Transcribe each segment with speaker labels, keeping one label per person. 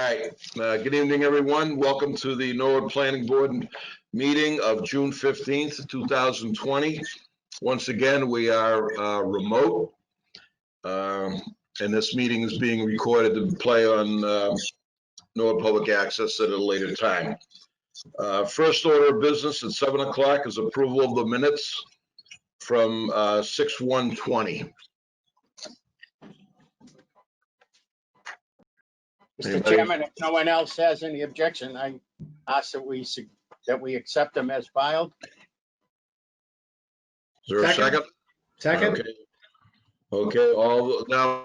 Speaker 1: Uh, Good evening, everyone. Welcome to the Norwood Planning Board meeting of June 15th, 2020. Once again, we are uh, remote. Um, And this meeting is being recorded to play on uh, Norwood Public Access at a later time. Uh, First order of business at 7 o'clock is approval of the minutes from uh, 6/1/20.
Speaker 2: Mr.
Speaker 1: Anybody?
Speaker 2: Chairman, if no one else has any objection, I ask that we, sug- that we accept them as filed.
Speaker 1: Is there a
Speaker 3: Second.
Speaker 1: second?
Speaker 3: Second?
Speaker 1: Okay. Okay, all, now,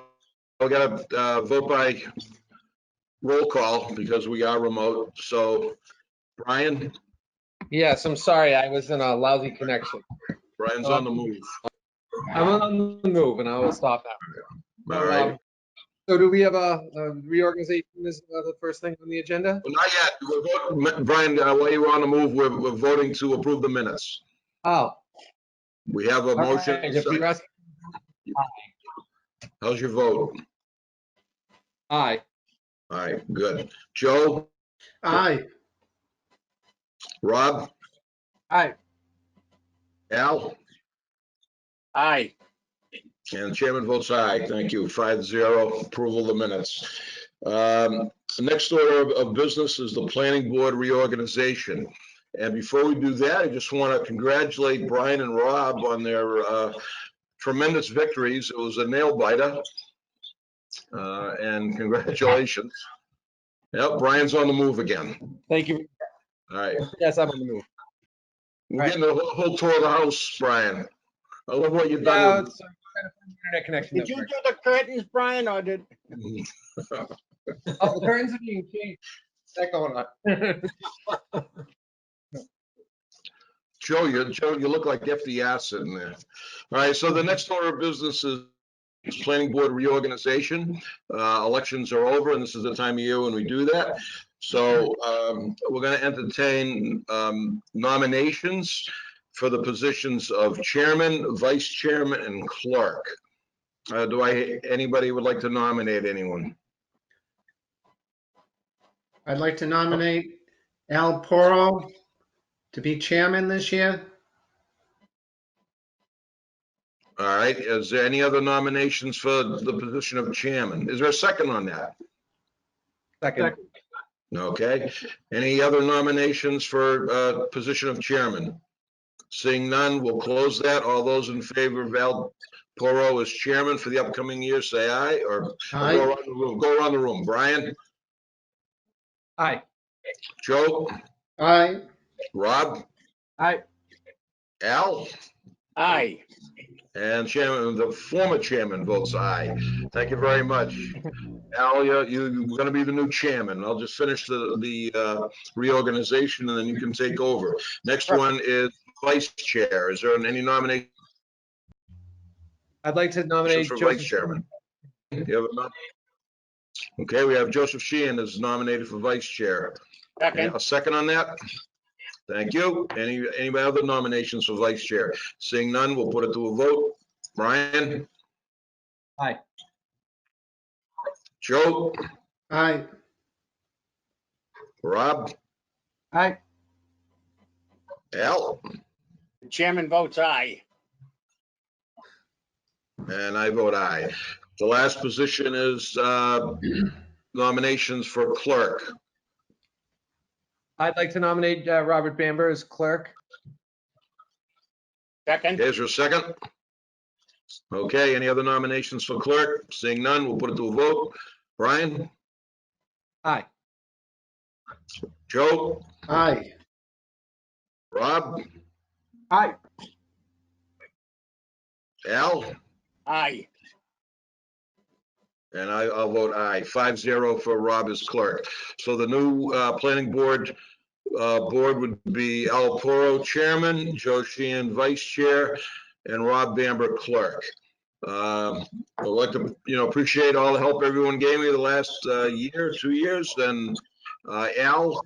Speaker 1: we gotta uh, vote by roll call because we are remote. So Brian,
Speaker 4: Yes, I'm sorry, I was in a lousy connection.
Speaker 1: Brian's on the move.
Speaker 4: I'm on the move and I will stop now.
Speaker 1: All right.
Speaker 4: Um, So do we have a a reorganization is uh, the first thing on the agenda?
Speaker 1: Well, Not yet. We're voting- Brian, uh, while you're on the move, we're, we're voting to approve the minutes.
Speaker 4: Oh.
Speaker 1: We have a
Speaker 4: all
Speaker 1: motion.
Speaker 4: right, if you're asking-
Speaker 1: How's your vote?
Speaker 4: Aye,
Speaker 1: All right, good. Joe,
Speaker 3: Aye.
Speaker 1: Rob,
Speaker 4: aye,
Speaker 1: Al?
Speaker 2: Aye.
Speaker 1: And the chairman votes aye. Thank you. Five zero, approval of the minutes. Um, Next order of- of business is the planning board reorganization. And before we do that, I just want to congratulate Brian and Rob on their uh, tremendous victories. It was a nail biter. Uh, And congratulations. Yep, Brian's on the move again.
Speaker 4: thank you.
Speaker 1: All right.
Speaker 4: Yes, I'm on the move.
Speaker 1: We're getting a whole- whole tour of the house, Brian. I love what you've
Speaker 4: Yeah,
Speaker 1: done.
Speaker 4: it's, uh, kind of an Internet connection.
Speaker 2: Did
Speaker 4: that
Speaker 2: you do
Speaker 4: works.
Speaker 2: the curtains, Brian, or did,
Speaker 1: with-
Speaker 4: Oh, the curtains are being changed. That going on.
Speaker 1: Joe, you, Joe, you look like FDR sitting there. All right, so the next order of business is planning board reorganization. Uh, elections are over and this is the time of year when we do that. So, um, we're gonna entertain, um, nominations for the positions of chairman, vice chairman and clerk. Uh, do I, anybody would like to nominate anyone?
Speaker 3: I'd like to nominate Al Poro to be chairman this year.
Speaker 1: All right, is there any other nominations for the position of chairman? Is there a second on that?
Speaker 4: Second,
Speaker 1: Okay, any other nominations for uh, position of chairman? Seeing none, we'll close that. All those in favor of Al Poro as chairman for the upcoming year, say aye, or go
Speaker 3: Aye.
Speaker 1: around the room, go around the room. Brian,
Speaker 4: aye,
Speaker 1: Joe,
Speaker 3: Aye.
Speaker 1: Rob,
Speaker 4: aye,
Speaker 1: Al,
Speaker 2: aye.
Speaker 1: and chairman, the former chairman votes aye. Thank you very much. Al, you're, you're gonna be the new chairman. I'll just finish the, the uh, reorganization and then you can take over. Next one is vice chair. Is there any nomination?
Speaker 4: I'd like to nominate
Speaker 1: nominations for vice
Speaker 4: Joseph.
Speaker 1: chairman. You have a nom- Okay, we have Joseph Sheehan is nominated for vice chair.
Speaker 2: Second.
Speaker 1: A second on that? Thank you. Any, any other nominations for vice chair? Seeing none, we'll put it to a vote. Brian?
Speaker 4: Aye.
Speaker 1: Joe?
Speaker 3: Aye.
Speaker 1: Rob?
Speaker 4: Aye,
Speaker 1: Al?
Speaker 2: The Chairman votes aye.
Speaker 1: And I vote aye. The last position is uh, nominations for clerk.
Speaker 4: I'd like to nominate uh, Robert Bamber as clerk.
Speaker 2: Second.
Speaker 1: There's your second. Okay, any other nominations for clerk? Seeing none, we'll put it to a vote. Brian,
Speaker 4: Aye,
Speaker 1: Joe,
Speaker 3: Aye.
Speaker 1: Rob,
Speaker 4: aye,
Speaker 1: Al,
Speaker 2: Aye.
Speaker 1: and I, I'll vote aye. Five zero for Rob as clerk. So the new, uh, planning board, uh, board would be Al Poro chairman, Joe Sheehan vice chair, and Rob Bamber clerk. Um, I'd like to, you know, appreciate all the help everyone gave me the last, uh, year, two years, and, uh, Al,